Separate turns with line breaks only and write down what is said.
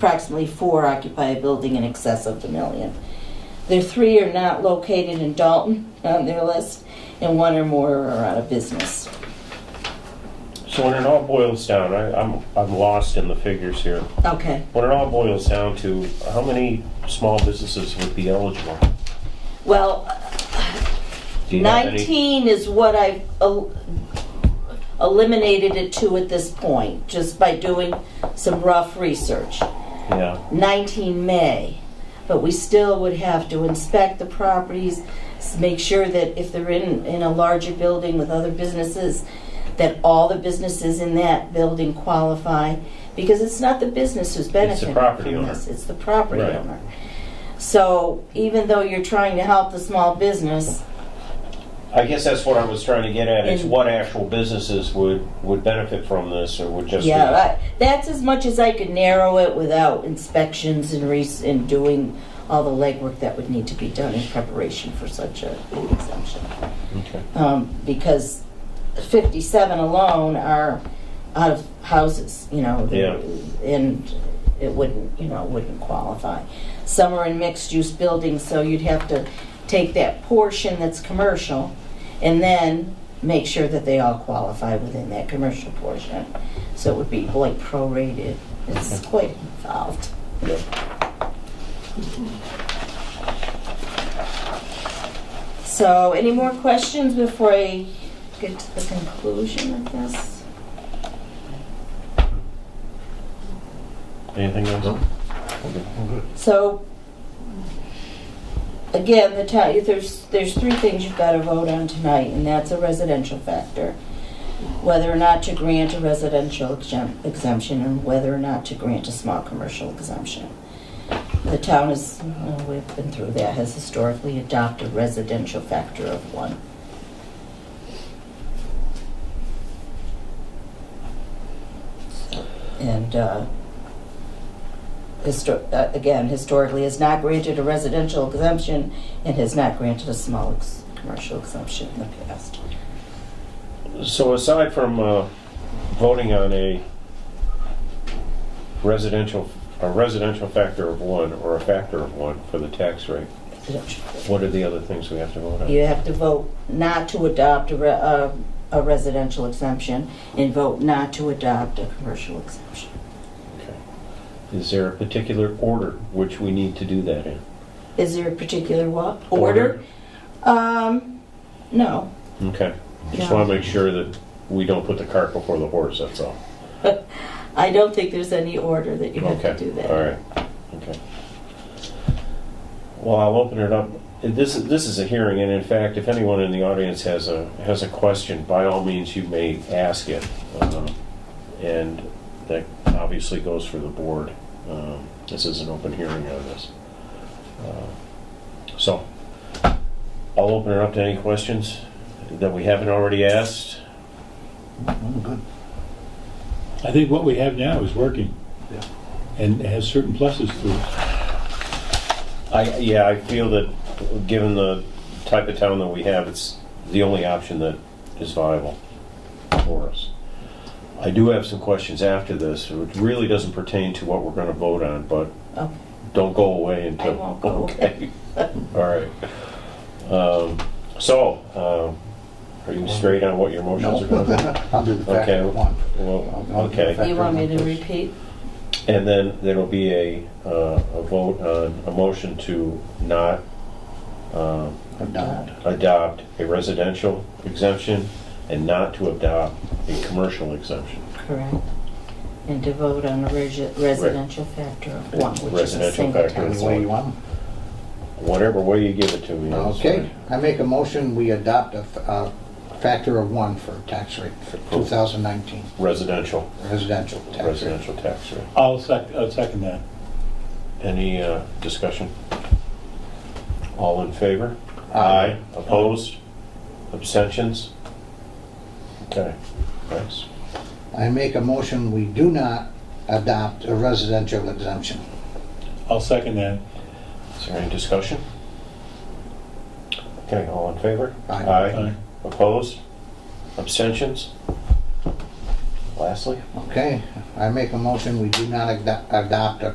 approximately four occupy a building in excess of the million. There three are not located in Dalton on their list, and one or more are out of business.
So when it all boils down, I, I'm, I'm lost in the figures here.
Okay.
When it all boils down to, how many small businesses would be eligible?
Well,
Do you have any-
19 is what I've el- eliminated it to at this point, just by doing some rough research.
Yeah,
19 May, but we still would have to inspect the properties, s- make sure that if they're in, in a larger building with other businesses, that all the businesses in that building qualify, because it's not the business who's benefiting
property
from
owner.
this, it's the property
Right.
owner. So even though you're trying to help the small business,
I guess that's what I was trying to get at, is
And-
what actual businesses would, would benefit from this, or would just be...
yeah, I- that's as much as I could narrow it without inspections and re, and doing all the legwork that would need to be done in preparation for such a an exemption.
Okay.
um, because 57 alone are out of houses, you know,
Yeah.
and it wouldn't, you know, wouldn't qualify. Some are in mixed-use buildings, so you'd have to take that portion that's commercial and then make sure that they all qualify within that commercial portion. So it would be like prorated. It's quite involved. So, any more questions before I get to the conclusion of this?
Anything else? Okay.
So, again, the town, there's, there's three things you've got to vote on tonight, and that's a residential factor. Whether or not to grant a residential exemp- exemption and whether or not to grant a small commercial exemption. The town is, uh, we've been through that, has historically adopted residential factor of one. And, uh, histo- uh, again, historically has not granted a residential exemption and has not granted a small ex- commercial exemption in the past.
So aside from uh, voting on a residential, a residential factor of one, or a factor of one for the tax rate, what are the other things we have to vote on?
You have to vote not to adopt a, re- uh, a residential exemption and vote not to adopt a commercial exemption.
Is there a particular order which we need to do that in?
Is there a particular what? Order? Um, no.
Okay. Just
No.
want to make sure that we don't put the cart before the horse, that's all.
I don't think there's any order that you have
Okay.
to do that.
All right, okay. Well, I'll open it up. This is, this is a hearing, and in fact, if anyone in the audience has a, has a question, by all means, you may ask it. Um, And that obviously goes for the board. Um, This is an open hearing on this. Uh, So, I'll open it up to any questions that we haven't already asked.
I think what we have now is working. And has certain pluses to it.
I, yeah, I feel that, given the type of town that we have, it's the only option that is viable for us. I do have some questions after this, which really doesn't pertain to what we're gonna vote on, but
Okay.
don't go away until.
I won't go
Okay. All right. Um, So, um, are you straight on what your motions are gonna be?
I'll do the
Okay.
factor one.
Well,
I'll do the
okay.
fact-
You want me to repeat?
And then there'll be a, uh, a vote on, a motion to not
I'm done.
adopt a residential exemption and not to adopt a commercial exemption.
Correct. And to vote on a resi- residential factor of one, which is a
Residential
single
factor.
town.
Any way you want. 'em.
Whatever way you give it to me. it's
Okay,
fine.
I make a motion, we adopt a, f- a factor of one for tax rate for 2019
Residential,
residential tax rate.
residential tax rate.
I'll sec, I'll second that.
Any uh, discussion? All in favor?
Aye.
Opposed? Abstentions? Okay, thanks.
I make a motion, we do not adopt a residential exemption.
I'll second that.
Is there any discussion? Okay, all in favor?
Aye.
Aye.
Opposed? Abstentions? Lastly?
Okay, I make a motion, we do not ado- adopt a